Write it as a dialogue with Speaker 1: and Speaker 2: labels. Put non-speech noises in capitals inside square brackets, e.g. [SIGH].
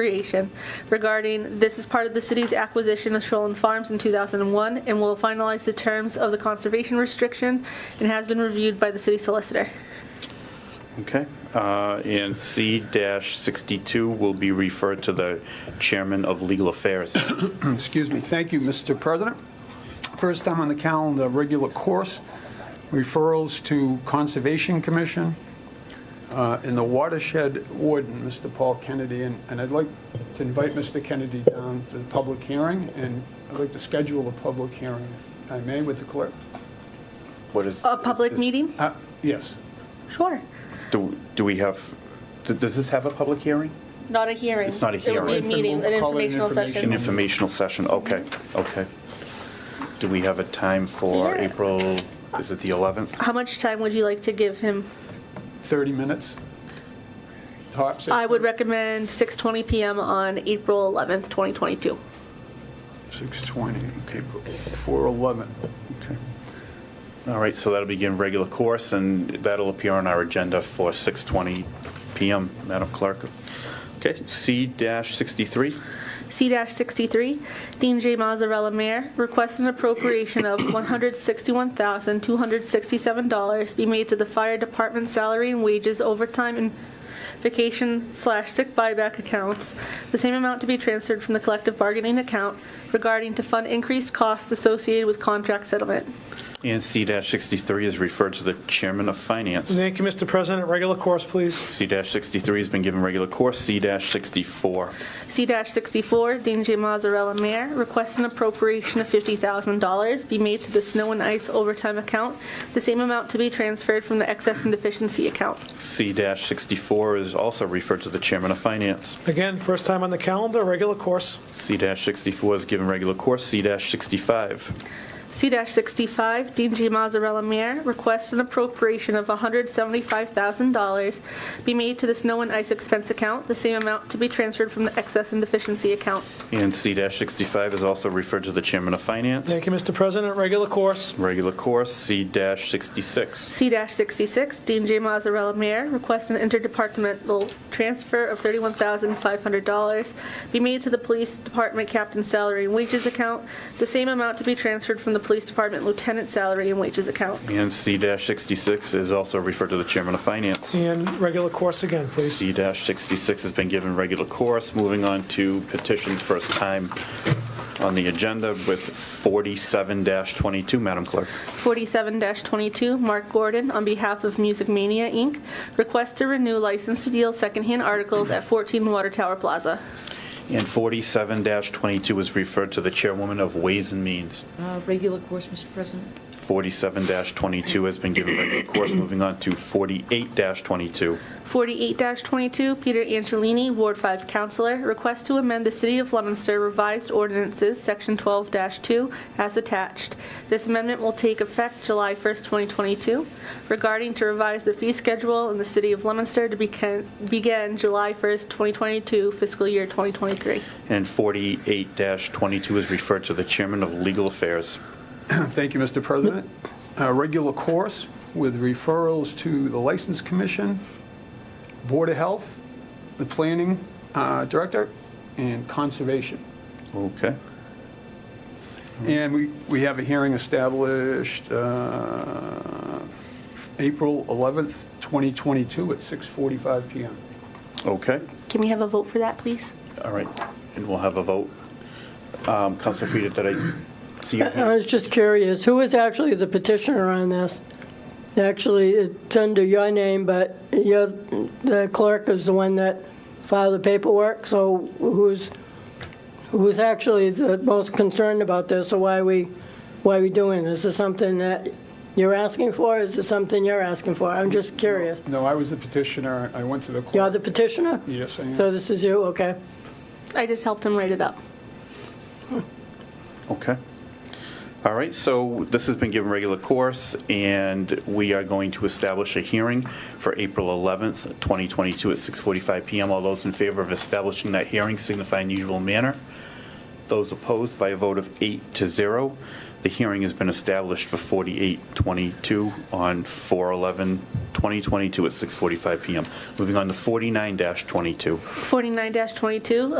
Speaker 1: Recreation regarding this is part of the city's acquisition of Shoalin Farms in 2001 and will finalize the terms of the conservation restriction and has been reviewed by the city solicitor.
Speaker 2: Okay, uh, and C-62 will be referred to the Chairman of
Speaker 1: [COUGHS]
Speaker 2: Legal Affairs.
Speaker 3: Excuse me. Thank you, Mr. President. First time on the calendar, regular course, referrals to Conservation Commission uh, and the Watershed Warden, Mr. Paul Kennedy. And and I'd like to invite Mr. Kennedy down for the public hearing, and I'd like to schedule a public hearing, if I may, with the clerk.
Speaker 2: What is?
Speaker 1: A
Speaker 2: is
Speaker 1: public
Speaker 2: this-
Speaker 1: meeting?
Speaker 3: Uh, Yes.
Speaker 1: Sure.
Speaker 2: Do do we have, d- does this have a public hearing?
Speaker 1: Not a hearing.
Speaker 2: It's not a
Speaker 1: It would
Speaker 2: hearing.
Speaker 1: be a meeting, an
Speaker 3: We'll call it an
Speaker 1: informational
Speaker 2: An
Speaker 1: session.
Speaker 3: information.
Speaker 2: informational session, okay, okay. Do we have a time for
Speaker 1: Yeah.
Speaker 2: April, is it the 11th?
Speaker 1: How much time would you like to give him?
Speaker 3: 30 minutes. Tops.
Speaker 1: I would recommend 6:20 PM on April 11th, 2022.
Speaker 3: 6:20, okay, 4:11.
Speaker 2: Okay. All right, so that'll begin regular course, and that'll appear on our agenda for 6:20 PM, Madam Clerk. Okay, C-63?
Speaker 1: C-63, Dean J. Mazzarella, Mayor, requests an appropriation of [COUGHS] $161,267 be made to the fire department salary and wages overtime and vacation slash sick buyback accounts, the same amount to be transferred from the collective bargaining account regarding to fund increased costs associated with contract settlement.
Speaker 2: And C-63 is referred to the Chairman of Finance.
Speaker 4: Thank you, Mr. President. Regular course, please.
Speaker 2: C-63 has been given regular course, C-64.
Speaker 1: C-64, Dean J. Mazzarella, Mayor, requests an appropriation of $50,000 be made to the snow and ice overtime account, the same amount to be transferred from the excess and deficiency account.
Speaker 2: C-64 is also referred to the Chairman of Finance.
Speaker 4: Again, first time on the calendar, regular course.
Speaker 2: C-64 is given regular course, C-65.
Speaker 1: C-65, Dean J. Mazzarella, Mayor, requests an appropriation of $175,000 be made to the snow and ice expense account, the same amount to be transferred from the excess and deficiency account.
Speaker 2: And C-65 is also referred to the Chairman of Finance.
Speaker 4: Thank you, Mr. President. Regular course.
Speaker 2: Regular course, C-66.
Speaker 1: C-66, Dean J. Mazzarella, Mayor, requests an interdepartmental transfer of $31,500 be made to the Police Department Captain's Salary and Wages Account, the same amount to be transferred from the Police Department Lieutenant's Salary and Wages Account.
Speaker 2: And C-66 is also referred to the Chairman of Finance.
Speaker 4: And regular course again, please.
Speaker 2: C-66 has been given regular course. Moving on to petitions, first time on the agenda with 47-22, Madam Clerk.
Speaker 1: 47-22, Mark Gordon, on behalf of Music Mania, Inc., requests to renew license to deal secondhand articles at 14 Water Tower Plaza.
Speaker 2: And 47-22 is referred to the Chairwoman of Ways and Means.
Speaker 5: Uh, Regular course, Mr. President.
Speaker 2: 47-22 has been given regular course. Moving on to 48-22.
Speaker 1: 48-22, Peter Angelini, Ward 5 Counselor, requests to amend the City of Leominster Revised Ordinances, Section 12-2, as attached. This amendment will take effect July 1st, 2022, regarding to revise the fee schedule in the City of Leominster to becan- begin July 1st, 2022, fiscal year 2023.
Speaker 2: And 48-22 is referred to the Chairman of Legal Affairs.
Speaker 3: Thank you, Mr. President. Uh, Regular course with referrals to the License Commission, Board of Health, the Planning uh, Director, and Conservation.
Speaker 2: Okay.
Speaker 3: And we we have a hearing established uh, April 11th, 2022 at 6:45 PM.
Speaker 2: Okay,
Speaker 1: Can we have a vote for that, please?
Speaker 2: all right, and we'll have a vote. Um, Counselor Frida, did I see your
Speaker 6: I
Speaker 1: Uh,
Speaker 2: hand?
Speaker 6: was just curious, who is actually the petitioner on this? Actually, it's under your name, but you're, the clerk is the one that filed the paperwork, so who's, who's actually the most concerned about this, or why we, why we doing? this? Is this something that you're asking for, is this something you're asking for? I'm just curious.
Speaker 3: No, I was the petitioner. I went to the
Speaker 6: You're
Speaker 3: court.
Speaker 6: the petitioner?
Speaker 3: Yes, I am.
Speaker 6: So this is you, okay.
Speaker 1: I just helped him write it up.
Speaker 2: Okay. All right, so this has been given regular course, and we are going to establish a hearing for April 11th, 2022 at 6:45 PM. All those in favor of establishing that hearing signify in usual manner. Those opposed by a vote of eight to zero. The hearing has been established for 4822 on 4/11/2022 at 6:45 PM. Moving on to 49-22.
Speaker 1: 49-22,